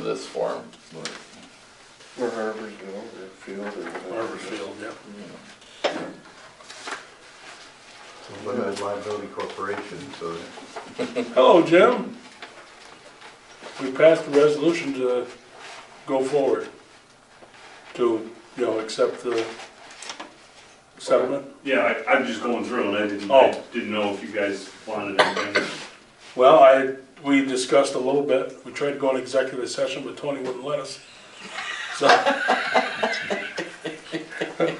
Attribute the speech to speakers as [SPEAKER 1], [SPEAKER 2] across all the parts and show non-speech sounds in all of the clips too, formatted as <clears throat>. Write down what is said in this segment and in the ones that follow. [SPEAKER 1] this form, but,
[SPEAKER 2] Or Harborsville, or Field, or.
[SPEAKER 3] Barber Field, yeah.
[SPEAKER 1] you know.
[SPEAKER 4] It's a limited liability corporation, so
[SPEAKER 3] Hello, Jim. We passed a resolution to go forward, to, you know, accept the settlement.
[SPEAKER 5] Yeah, I, I'm just going through and I didn't, I
[SPEAKER 3] Oh.
[SPEAKER 5] didn't know if you guys wanted anything.
[SPEAKER 3] Well, I, we discussed a little bit, we tried to go on executive session, but Tony wouldn't let us. So. <laughs>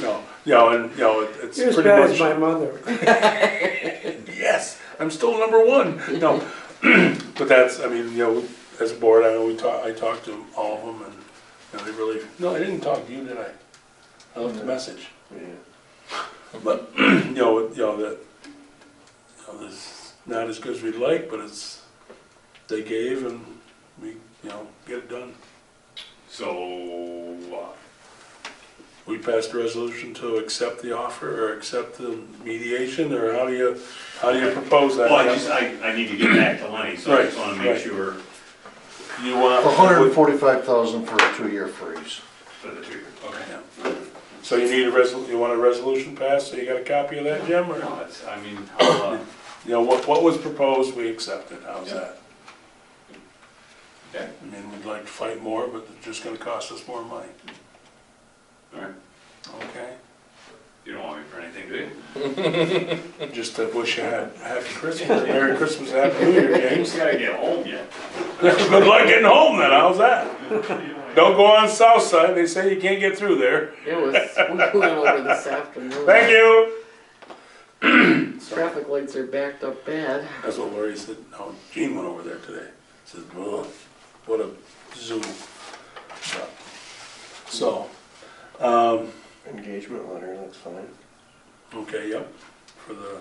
[SPEAKER 3] No, you know, and, you know, it- it's
[SPEAKER 6] You're as
[SPEAKER 3] pretty
[SPEAKER 6] bad as
[SPEAKER 3] much,
[SPEAKER 6] my mother.
[SPEAKER 3] <laughs>
[SPEAKER 6] <laughs>
[SPEAKER 3] yes, I'm still number one, no. <clears throat> But that's, I mean, you know, as a board, I know we talked, I talked to all of them and, you know, they really, no, I didn't talk to you, did I? I left a message.
[SPEAKER 2] Yeah.
[SPEAKER 3] But, you know, you know, that, you know, it's not as good as we'd like, but it's, they gave and we, you know, get it done.
[SPEAKER 5] So, uh,
[SPEAKER 3] We passed a resolution to accept the offer or accept the mediation, or how do you, how do you propose that?
[SPEAKER 5] well, I just, I, I need to get back to Lenny, so I just wanna
[SPEAKER 3] Right,
[SPEAKER 5] make
[SPEAKER 3] right.
[SPEAKER 5] sure
[SPEAKER 3] You
[SPEAKER 2] For hundred and
[SPEAKER 3] want,
[SPEAKER 2] forty-five thousand for a two-year freeze.
[SPEAKER 5] for the two.
[SPEAKER 3] Okay. so you need a resol, you want a resolution passed, so you got a copy of that, Jim, or?
[SPEAKER 5] No, it's, I mean, I'll, uh,
[SPEAKER 3] You know, what, what was proposed, we accepted, how's
[SPEAKER 5] Yeah.
[SPEAKER 3] that?
[SPEAKER 5] Okay.
[SPEAKER 3] I mean, we'd like to fight more, but it's just gonna cost us more money,
[SPEAKER 5] alright,
[SPEAKER 3] okay?
[SPEAKER 5] you don't want me for anything, do you?
[SPEAKER 3] Just to wish you a happy Christmas, Merry Christmas, Happy New Year, James. <laughs>
[SPEAKER 5] You gotta get home yet. <laughs>
[SPEAKER 3] Good luck getting home then, how's that? Don't go on south side, they say you can't get through there.
[SPEAKER 7] It was, we went over this afternoon.
[SPEAKER 3] Thank you.
[SPEAKER 7] Traffic lights are backed up bad.
[SPEAKER 3] That's what Lori said, no, Gene went over there today, says, "Ugh, what a zoo. So, um,
[SPEAKER 2] Engagement letter, that's fine.
[SPEAKER 3] okay, yep, for the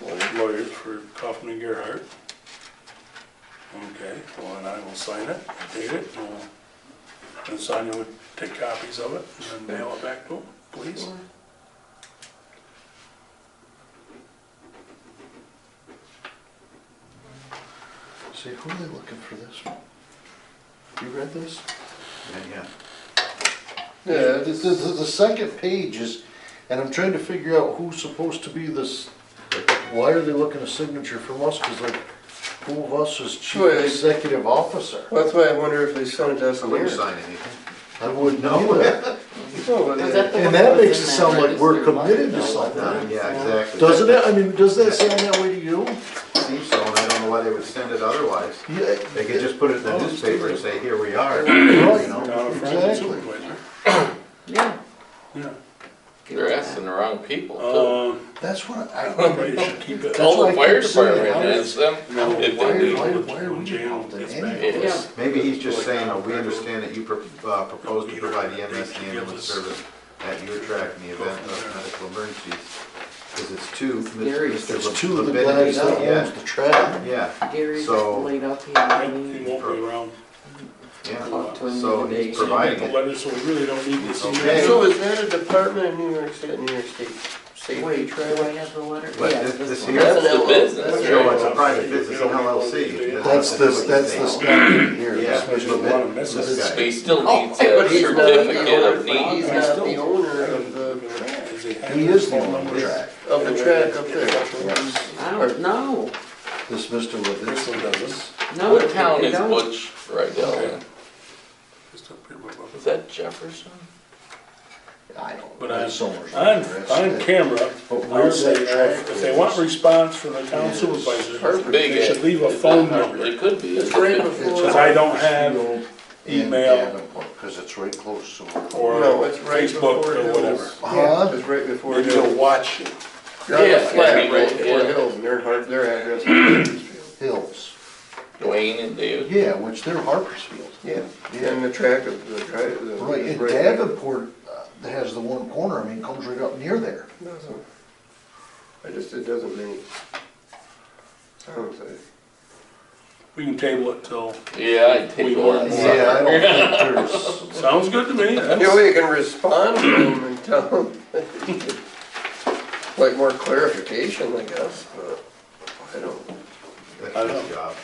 [SPEAKER 2] Letter.
[SPEAKER 3] lawyers for Kaufman and Gerhart. Okay, well, and I will sign it, date it, and we'll- and Sonia would take copies of it and then mail it back to them, please.
[SPEAKER 2] See, who are they looking for this one? You read this?
[SPEAKER 4] yeah.
[SPEAKER 2] Yeah, the, the, the the second page is, and I'm trying to figure out who's supposed to be this, why are they looking a signature from us? Cause like, who of us is chief
[SPEAKER 1] Well, they-
[SPEAKER 2] executive officer?
[SPEAKER 1] Well, that's why I wonder if they sent it to us
[SPEAKER 4] I wouldn't
[SPEAKER 1] here.
[SPEAKER 4] sign anything.
[SPEAKER 2] I wouldn't know that.
[SPEAKER 1] No, but they-
[SPEAKER 7] Was the one
[SPEAKER 2] Oh, And that
[SPEAKER 7] was
[SPEAKER 2] makes
[SPEAKER 7] in
[SPEAKER 2] it
[SPEAKER 7] that
[SPEAKER 2] sound like we're
[SPEAKER 7] registered letter?
[SPEAKER 2] committed to something.
[SPEAKER 4] Yeah, exactly.
[SPEAKER 2] Doesn't it? I mean, does that sound that way to you?
[SPEAKER 4] Seems so, and I don't know why they would send it otherwise.
[SPEAKER 2] Yeah.
[SPEAKER 4] They could just put it in
[SPEAKER 2] Oh,
[SPEAKER 4] the newspaper and say, here we are.
[SPEAKER 2] Right.
[SPEAKER 4] You know?
[SPEAKER 3] Down in front of the
[SPEAKER 2] Exactly.
[SPEAKER 3] supervisor.
[SPEAKER 7] Yeah.
[SPEAKER 3] Yeah.
[SPEAKER 1] They're asking the wrong people too.
[SPEAKER 3] Um,
[SPEAKER 2] That's what I,
[SPEAKER 3] probably should keep it.
[SPEAKER 2] That's
[SPEAKER 1] Call
[SPEAKER 2] what
[SPEAKER 1] the
[SPEAKER 2] I
[SPEAKER 1] fire
[SPEAKER 2] keep saying.
[SPEAKER 1] department, and ask them
[SPEAKER 3] No,
[SPEAKER 1] if
[SPEAKER 2] why-
[SPEAKER 1] they do.
[SPEAKER 2] why- why are we
[SPEAKER 3] Jan
[SPEAKER 2] involved in
[SPEAKER 3] gets
[SPEAKER 2] any
[SPEAKER 3] back
[SPEAKER 2] of
[SPEAKER 3] to
[SPEAKER 7] Yeah.
[SPEAKER 3] us.
[SPEAKER 4] Maybe he's just saying, uh, we understand that you pro- uh, propose to provide the EMS ambulance service at your track in the event of medical emergencies. Because it's two,
[SPEAKER 7] There is-
[SPEAKER 4] Mr.
[SPEAKER 2] there's
[SPEAKER 4] Le-
[SPEAKER 2] two of the
[SPEAKER 4] Lebedny,
[SPEAKER 2] guys that
[SPEAKER 4] yeah,
[SPEAKER 2] owns the track.
[SPEAKER 4] Yeah,
[SPEAKER 7] Gary's
[SPEAKER 4] So-
[SPEAKER 7] laid up, he
[SPEAKER 3] He
[SPEAKER 7] had
[SPEAKER 3] won't be around.
[SPEAKER 4] yeah.
[SPEAKER 7] talked to him the
[SPEAKER 4] So
[SPEAKER 7] other day.
[SPEAKER 4] he's
[SPEAKER 3] So you
[SPEAKER 4] providing
[SPEAKER 3] get
[SPEAKER 4] it.
[SPEAKER 3] the letter, so we really don't need this
[SPEAKER 4] Okay.
[SPEAKER 3] email.
[SPEAKER 1] So is that a department in New York State, New York State Safety
[SPEAKER 7] Wait, do I
[SPEAKER 1] Trail?
[SPEAKER 7] have the letter?
[SPEAKER 4] But
[SPEAKER 7] Yes,
[SPEAKER 4] this- this
[SPEAKER 7] one.
[SPEAKER 4] here-
[SPEAKER 1] That's the business,
[SPEAKER 4] Joe,
[SPEAKER 1] right?
[SPEAKER 4] it's a private business, an LLC.
[SPEAKER 2] That's this, that's this document here.
[SPEAKER 4] Yeah.
[SPEAKER 2] This
[SPEAKER 3] There's
[SPEAKER 2] is
[SPEAKER 3] a lot of
[SPEAKER 2] the-
[SPEAKER 3] messes.
[SPEAKER 4] This guy.
[SPEAKER 1] But he still
[SPEAKER 7] Oh,
[SPEAKER 1] needs
[SPEAKER 7] but
[SPEAKER 1] a
[SPEAKER 7] he's not-
[SPEAKER 1] certificate of
[SPEAKER 3] I
[SPEAKER 1] need
[SPEAKER 7] he's
[SPEAKER 1] of
[SPEAKER 3] still-
[SPEAKER 1] the owner of the track,
[SPEAKER 3] Is he-
[SPEAKER 2] He is the owner of the track.
[SPEAKER 1] of the track up there.
[SPEAKER 7] I don't, no,
[SPEAKER 2] This Mr.
[SPEAKER 3] Bristol
[SPEAKER 2] Levinsky.
[SPEAKER 3] does this.
[SPEAKER 7] no,
[SPEAKER 1] What
[SPEAKER 7] they
[SPEAKER 1] town is
[SPEAKER 7] don't.
[SPEAKER 1] Butch Rydell in?
[SPEAKER 3] Just up here, blah, blah, blah.
[SPEAKER 1] Is that Jefferson?
[SPEAKER 2] I don't.
[SPEAKER 3] But
[SPEAKER 2] know.
[SPEAKER 3] on,
[SPEAKER 2] It's somewhere
[SPEAKER 3] on,
[SPEAKER 2] around there.
[SPEAKER 3] on camera,
[SPEAKER 2] But
[SPEAKER 3] I'll
[SPEAKER 2] where
[SPEAKER 3] say,
[SPEAKER 2] that track
[SPEAKER 3] if they want
[SPEAKER 2] is,
[SPEAKER 3] response from the town
[SPEAKER 2] is
[SPEAKER 3] supervisor,
[SPEAKER 2] perfect.
[SPEAKER 1] Big
[SPEAKER 3] they should
[SPEAKER 1] Ed.
[SPEAKER 3] leave a
[SPEAKER 1] Is that
[SPEAKER 3] phone
[SPEAKER 1] Harvard?
[SPEAKER 3] number.
[SPEAKER 1] It could be.
[SPEAKER 7] It's right
[SPEAKER 1] It
[SPEAKER 2] It's
[SPEAKER 7] before,
[SPEAKER 3] Cause I don't have
[SPEAKER 2] Bakersfield and
[SPEAKER 3] email.
[SPEAKER 2] Davenport, Cause it's right close to. where-
[SPEAKER 3] or
[SPEAKER 1] No, it's right
[SPEAKER 3] Facebook
[SPEAKER 1] before
[SPEAKER 3] or
[SPEAKER 1] Hills.
[SPEAKER 3] whatever.
[SPEAKER 2] Huh?
[SPEAKER 1] was right before.
[SPEAKER 3] Maybe they'll watch it.
[SPEAKER 1] You're on the
[SPEAKER 7] Yeah,
[SPEAKER 1] flat
[SPEAKER 7] yeah,
[SPEAKER 1] right
[SPEAKER 7] yeah.
[SPEAKER 1] before Hills, and their, har- their address <coughs> is
[SPEAKER 2] Hills,
[SPEAKER 1] Dwayne and David.
[SPEAKER 2] yeah, which they're Harpersfield.
[SPEAKER 1] Yeah. And the track of the drive. the-
[SPEAKER 2] Right, and Davenport uh, has the one corner, I mean, comes right up near there.
[SPEAKER 1] Doesn't- I just, it doesn't make sounds like.
[SPEAKER 3] We can table it till,
[SPEAKER 1] Yeah, I take
[SPEAKER 3] We
[SPEAKER 1] one.
[SPEAKER 3] want-
[SPEAKER 2] Yeah, I don't think there's,
[SPEAKER 3] sounds good to me,
[SPEAKER 1] You know,
[SPEAKER 3] that's,
[SPEAKER 1] you can respond to them and tell them. Like more clarification, I guess, but I don't.
[SPEAKER 4] That's his job.